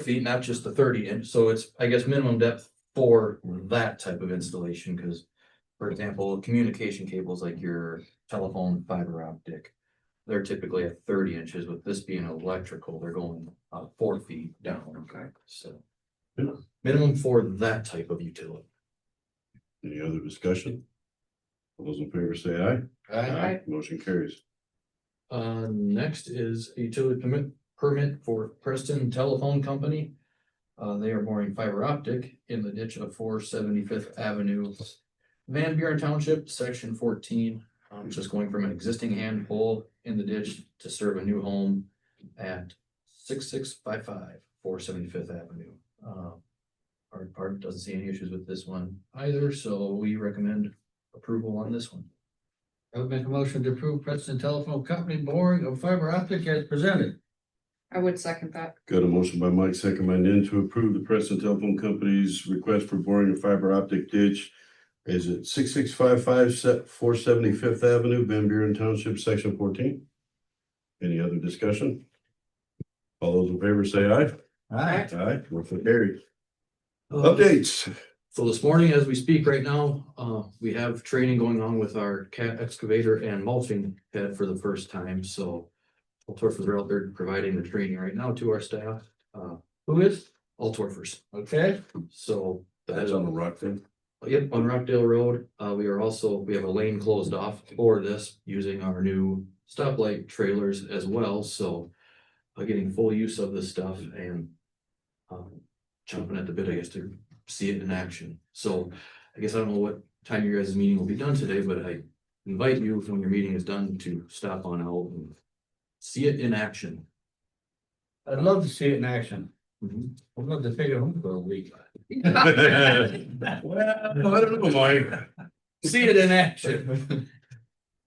feet, not just the thirty inch, so it's, I guess, minimum depth for that type of installation, cause. For example, communication cables like your telephone fiber optic. They're typically at thirty inches, with this being electrical, they're going uh four feet down, Okay. so. Minimum for that type of utility. Any other discussion? All those in favor say aye. Motion carries. Uh, next is a utility permit, permit for Preston Telephone Company. Uh, they are boring fiber optic in the ditch of four seventy-fifth Avenue. Van Buren Township, section fourteen, um, just going from an existing hand pole in the ditch to serve a new home at 6655 475th Avenue. Uh, Our part doesn't see any issues with this one either, so we recommend approval on this one. I would make a motion to approve Preston Telephone Company boring of fiber optic as presented. I would second that. Got a motion by Mike, second by Nan to approve the Preston Telephone Company's request for boring a fiber optic ditch. Is it six six five five set four seventy fifth Avenue, Van Buren Township, section fourteen? Any other discussion? All those in favor say aye. Aye. Aye. Motion carries. Updates. So this morning, as we speak right now, uh, we have training going on with our cat excavator and mulching head for the first time, so. Altorfers are out there providing the training right now to our staff, uh, Who is? Altorfers, Okay, so. that That's is on the rock then. Yep, on Rockdale Road, uh, we are also, we have a lane closed off for this using our new stoplight trailers as well, so. Uh, getting full use of this stuff and. Um, chomping at the bit, I guess, to see it in action, so I guess I don't know what time your guys' meeting will be done today, but I. Invite you when your meeting is done to stop on out and see it in action. I'd love to see it in action. Mhm. I'd love to take it home for a week. Well, I don't know, Mike. See it in action.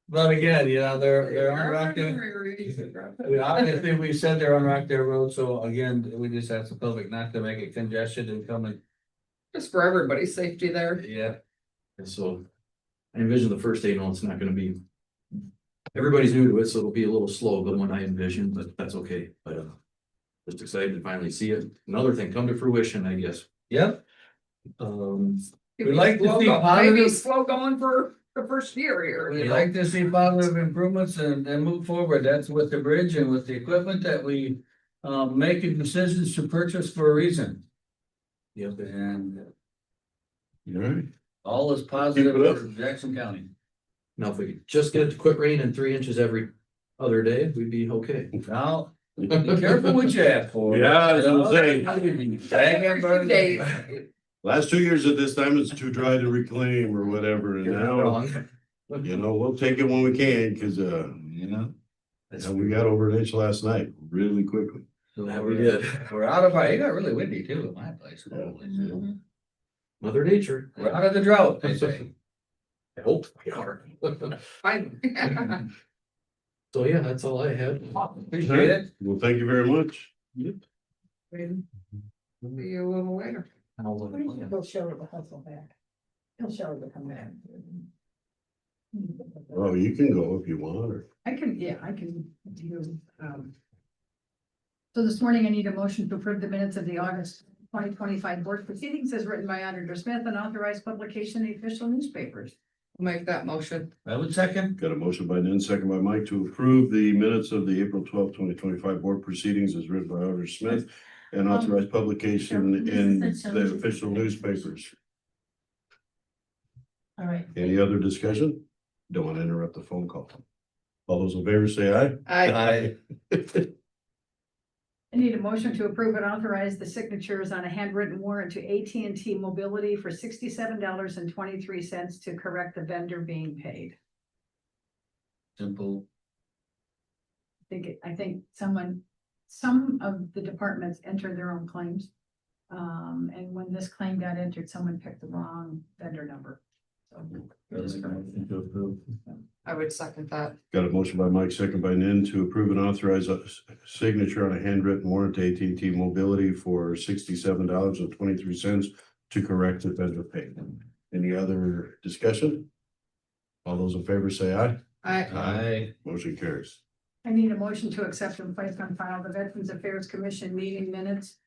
But again, you know, they're, they're on Rockdale, we obviously, we said they're on Rockdale Road, so again, we just asked the public not to make it congested and come and, Just for everybody's safety there. yeah. And so I envision the first day, no, it's not gonna be. Everybody's new to it, so it'll be a little slow, but when I envision, but that's okay, but uh. Just excited to finally see it. Another thing come to fruition, I guess. Yep, Um, We like to see Maybe positive- slow going for the first year here. we'd like to see positive improvements and, and move forward. That's with the bridge and with the equipment that we um, making decisions to purchase for a reason. yeah, but And All right. all is Keep it up. positive for Jackson County. now if we could just get it to quit raining three inches every other day, we'd be okay. Now, be careful what you ask for. Yeah, I was gonna say. Dang it, Every few days. brother. Last two years at this time, it's too dry to reclaim or whatever, and You're not now, wrong. you know, we'll take it when we can, cause uh, You know, yeah, we got over an inch last night really quickly. Yeah, we did. we're out of, our- it got really windy too at my place. Holy shit. Mhm. Mother nature. We're out of the drought, they say. I hope we are. Fine. So yeah, that's all I had. Appreciate it. Well, thank you very much. Wait, See you a little later. Why don't you go show her the hustle back? He'll show her the come back. Oh, you can go if you want, or I can, yeah, I can do, um. So this morning I need a motion to approve the minutes of the August twenty twenty-five board proceedings as written by Auditor Smith and authorized publication in the official newspapers. Make that motion. I would second. got a motion by Nan, second by Mike to approve the minutes of the April twelfth, twenty twenty-five board proceedings as written by Auditor Smith and authorized publication in the official newspapers. All right. Any other discussion? Don't want to interrupt the phone call. All those in favor say aye. I, I need a motion to approve and authorize the signatures on a handwritten warrant to AT&T Mobility for sixty-seven dollars and twenty-three cents to correct the vendor being paid. Simple. I think, it- I think someone, some of the departments enter their own claims. Um, and when this claim got entered, someone picked the wrong vendor number. So we just corrected that. I would second that. Got a motion by Mike, second by Nin to approve and authorize a s- signature on a handwritten warrant to AT&T Mobility for sixty-seven dollars and twenty-three cents to correct the vendor pay. Any other discussion? All those in favor say aye. I, Aye. Motion carries. I need a motion to accept and place on file the Veterans Affairs Commission meeting minutes